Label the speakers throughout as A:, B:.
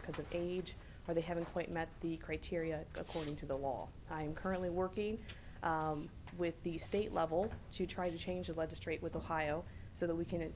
A: because of age, or they haven't quite met the criteria according to the law. I am currently working um, with the state level to try to change the legislate with Ohio so that we can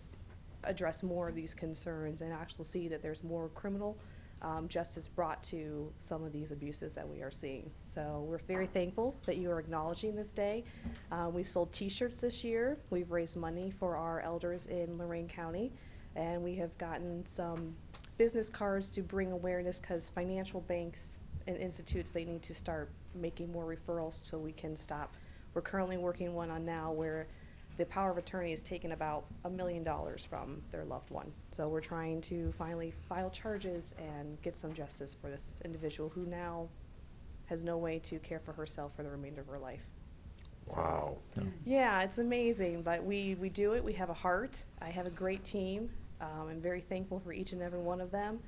A: address more of these concerns and actually see that there's more criminal um, justice brought to some of these abuses that we are seeing. So we're very thankful that you are acknowledging this day. Uh, We've sold T-shirts this year. We've raised money for our elders in Lorraine County. And we have gotten some business cards to bring awareness because financial banks and institutes, they need to start making more referrals so we can stop. We're currently working one on now where the power of attorney has taken about a million dollars from their loved one. So we're trying to finally file charges and get some justice for this individual who now has no way to care for herself for the remainder of her life. So-
B: Wow.
A: yeah, it's amazing, but we, we do it. We have a heart. I have a great team. Um, I'm very thankful for each and every one of them.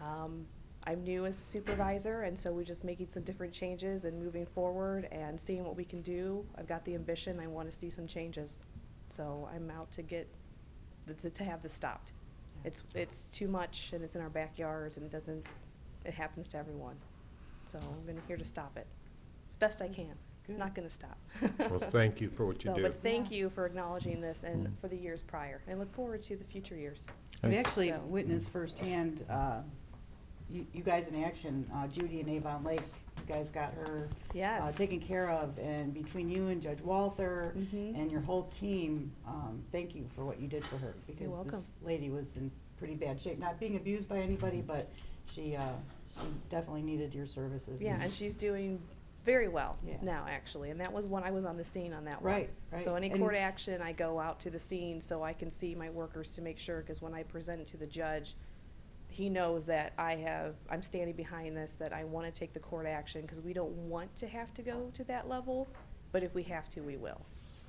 A: Um, I'm new as a supervisor, and so we're just making some different changes and moving forward and seeing what we can do. I've got the ambition. I want to see some changes. So I'm out to get, th- th- to have this stopped. It's, it's too much, and it's in our backyards, and it doesn't, it happens to everyone. So I'm gonna, here to stop it. As best I can.
C: Good.
A: Not gonna stop.
B: Well, thank you for what you
A: So,
B: do.
A: but thank
C: Yeah.
A: you for acknowledging this and
C: Mm-hmm.
D: Mm.
A: for the years prior. I look forward to the future years.
C: We
D: Okay.
C: actually
A: So-
C: witnessed firsthand, uh, you you guys in action, uh, Judy and Avon Lake, you guys got her uh,
A: Yes.
C: taken care of, and between you and Judge Walther
A: Mhm.
C: and your whole team, um, thank you for what you did for her. Because
A: welcome.
C: this lady was in pretty bad shape, not being abused by anybody, but she, uh, she definitely needed your services.
A: Yeah, and she's doing very well
C: Yeah.
A: now, actually. And that was when I was on the scene on that one.
C: Right, right.
A: So any
C: And-
A: court action, I go out to the scene so I can see my workers to make sure, because when I present it to the judge, he knows that I have, I'm standing behind this, that I want to take the court action, because we don't want to have to go to that level, but if we have to, we will.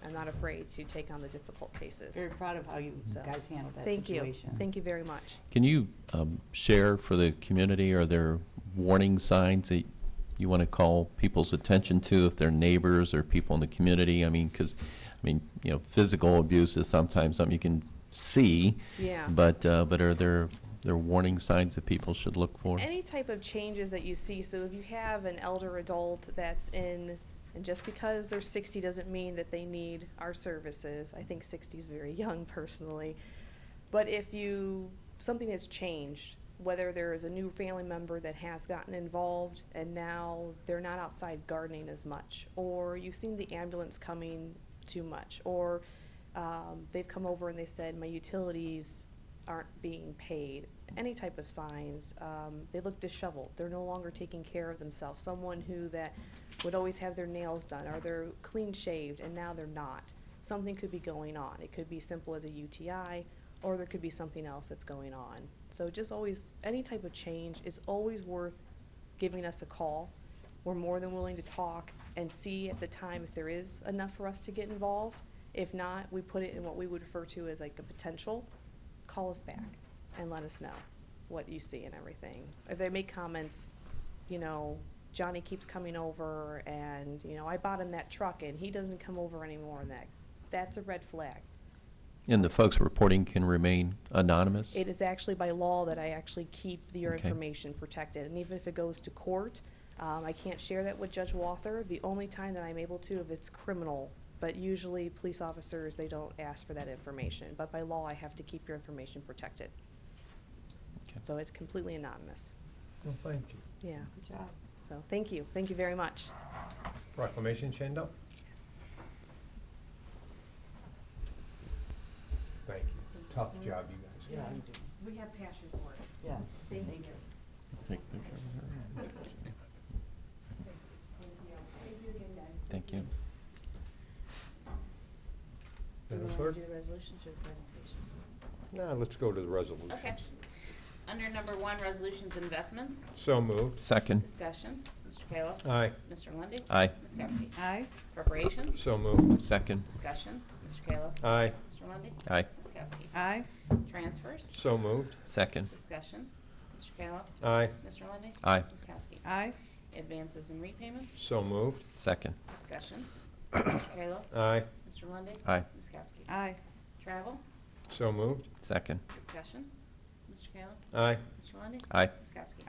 A: I'm not afraid to take on the difficult cases.
C: Very proud of how you
A: So,
C: guys handled that
A: Thank you.
C: situation.
A: Thank you very much.
D: Can you um, share for the community, are there warning signs that you want to call people's attention to if they're neighbors or people in the community? I mean, because, I mean, you know, physical abuse is sometimes something you can see.
A: Yeah.
D: But, uh, but are there, there warning signs that people should look for?
A: Any type of changes that you see, so if you have an elder adult that's in, and just because they're sixty doesn't mean that they need our services, I think sixty's very young personally. But if you, something has changed, whether there is a new family member that has gotten involved and now they're not outside gardening as much, or you've seen the ambulance coming too much, or um, they've come over and they said, my utilities aren't being paid, any type of signs, um, they look disheveled, they're no longer taking care of themselves, someone who that would always have their nails done, or they're clean shaved, and now they're not. Something could be going on, it could be simple as a UTI, or there could be something else that's going on. So just always, any type of change is always worth giving us a call. We're more than willing to talk and see at the time if there is enough for us to get involved. If not, we put it in what we would refer to as like a potential. Call us back and let us know what you see and everything. If they make comments, you know, Johnny keeps coming over and, you know, I bought him that truck and he doesn't come over anymore and that, that's a red flag.
D: And the folks reporting can remain anonymous?
A: It is actually by law that I actually keep your
D: Okay.
A: information protected, and even if it goes to court, um, I can't share that with Judge Walther. The only time that I'm able to, if it's criminal, but usually police officers, they don't ask for that information. But by law, I have to keep your information protected,
D: Okay.
A: so it's completely anonymous.
B: Well, thank you.
A: Yeah,
C: Good job.
A: so, thank you, thank you very much.
B: Proclamation, Shandell? Thank you. Tough job, you
C: Yeah,
B: guys.
C: you do.
A: We have passion for it.
C: Yeah, thank you.
D: Take a picture of her. Thank you.
E: Do we
B: Madam
E: want
B: Clerk?
E: to do the resolutions or the presentation?
B: Now, let's go to the resolutions.
F: Okay. Under number one, resolutions and investments,
B: So moved.
D: Second,
F: discussion, Mr. Kayla.
B: Aye.
F: Mr. Lundey.
D: Aye.
F: Ms. Kowski.
C: Aye,
F: Appropriations,
B: So moved.
D: second,
F: discussion, Mr. Kayla.
B: Aye.
F: Mr. Lundey.
D: aye,
F: Ms. Kowski.
C: aye,
F: Transfers,
B: So moved.
D: second,
F: discussion, Mr. Kayla.
B: Aye.
F: Mr. Lundey.
D: Aye.
F: Ms. Kowski.
C: aye,
F: Advances and repayments,
B: So moved.
D: second,
F: discussion, Mr. Kayla.
B: Aye.
F: Mr. Lundey.
D: Aye.
F: Ms. Kowski.
C: aye,
F: Travel,
B: So moved.
D: second,
F: discussion, Mr. Kayla.
B: Aye.
F: Mr. Lundey.
D: aye.
F: Ms. Kowski.